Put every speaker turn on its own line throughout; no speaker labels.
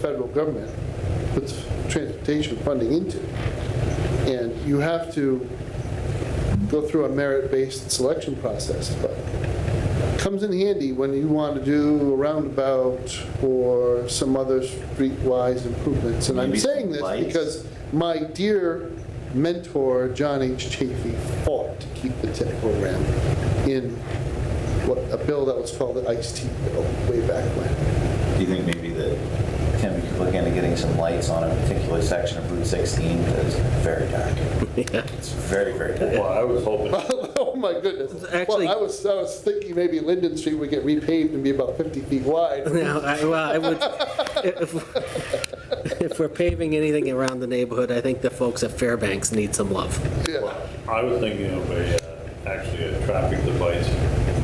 federal government puts transportation funding into. And you have to go through a merit-based selection process, but it comes in handy when you want to do a roundabout or some other streetwise improvements. And I'm
Maybe some
saying this
lights?
because my dear mentor, John H. Chafee, fought to keep the TIP program in what, a bill that was called the ICE-T bill way back when.
Do you think maybe that Tim, you could look into getting some lights on a particular section of Route 16 because it's very dark. It's very, very dark.
Well, I was hoping,
Oh, my goodness.
Actually-
Well, I was, I was thinking maybe Linden Street would get repaved and be about 50 feet wide.
No, I- well, I would, if, if we're paving anything around the neighborhood, I think the folks at Fairbanks need some love.
Yeah.
I was thinking of a, uh, actually a traffic device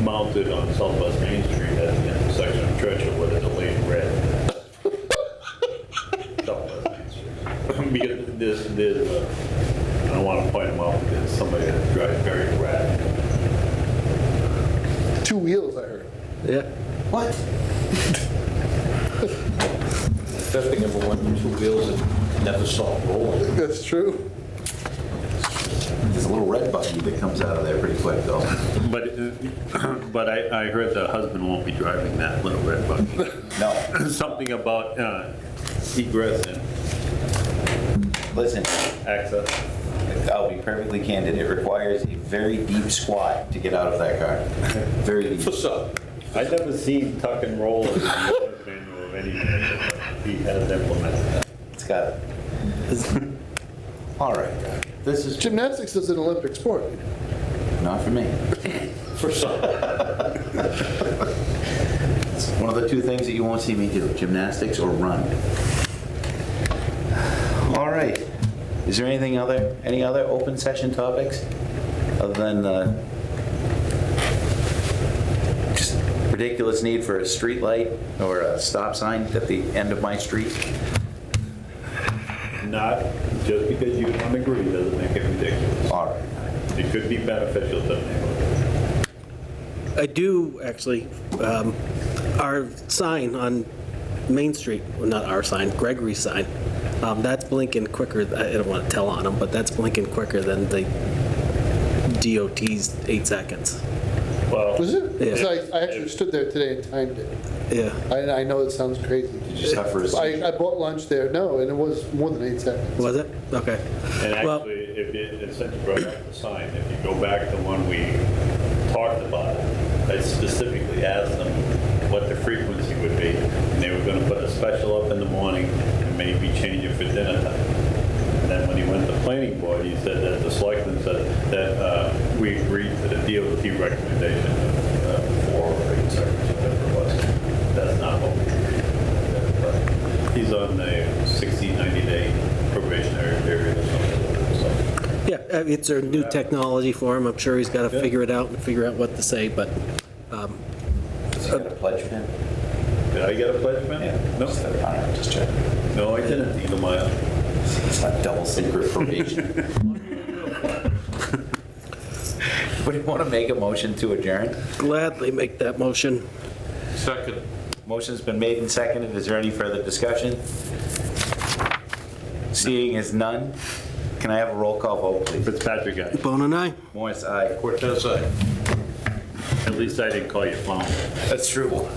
mounted on Southwest Main Street at the intersection of Churchill with a delayed red. Southwest Main Street. Because there's, there's, uh, I don't want to point them out, but there's somebody that drives very erratic.
Two wheels, I heard.
Yeah.
What?
Thing number one, two wheels that never saw rolling.
That's true.
There's a little red button that comes out of there pretty quick though.
But, uh, but I, I heard the husband won't be driving that little red buggy.
No,
Something about uh, egress and
listen,
access.
I'll be perfectly candid. It requires a very deep squat to get out of that car. Very deep.
What's up?
I never seen tuck and roll in the manual of any man. He has implemented that.
It's got, all right, this is
Gymnastics is an Olympic sport.
not for me.
For some.
One of the two things that you won't see me do, gymnastics or run. All right. Is there anything other, any other open session topics other than uh, the just ridiculous need for a street light or a stop sign at the end of my street?
Not, just because you don't agree doesn't make it ridiculous.
All right.
It could be beneficial to the neighborhood.
I do, actually, um, our sign on Main Street, well, not our sign, Gregory's sign, um, that's blinking quicker, I don't want to tell on them, but that's blinking quicker than the DOT's eight seconds.
Was
Well,
it? Because I, I
Yeah.
actually stood there today and timed it.
Yeah.
I, I know it sounds crazy.
Did you suffer a
I, I bought lunch there, no, and it was more than eight seconds.
Was it? Okay.
and
Well-
actually, if it, and since you brought up the sign, if you go back to one we talked about, I specifically asked them what the frequency would be, and they were gonna put a special up in the morning and maybe change it for dinner time. And then when he went to planning board, he said that the selectmen said that uh, we agreed to the DOT recommendation of four or eight seconds, whatever it was. That's not what we agreed. to. But He's on the 60, 90-day probationary period or something. so-
Yeah, uh, it's a new technology for him. I'm sure he's got to figure it out and figure out what to say, but
Is he got a pledge pin?
Did I get a pledge, man? No,
All right, just checking.
no, I didn't, Neither mile.
It's not double secret probation. Would you want to make a motion to adjourn?
gladly make that motion.
Second.
Motion's been made and seconded. Is there any further discussion? Seeing is none, can I have a roll call vote, please?
Fitzpatrick guy,
Bone and I.
Morris, aye.
Cortez, aye.
at least I didn't call you clown.
That's true.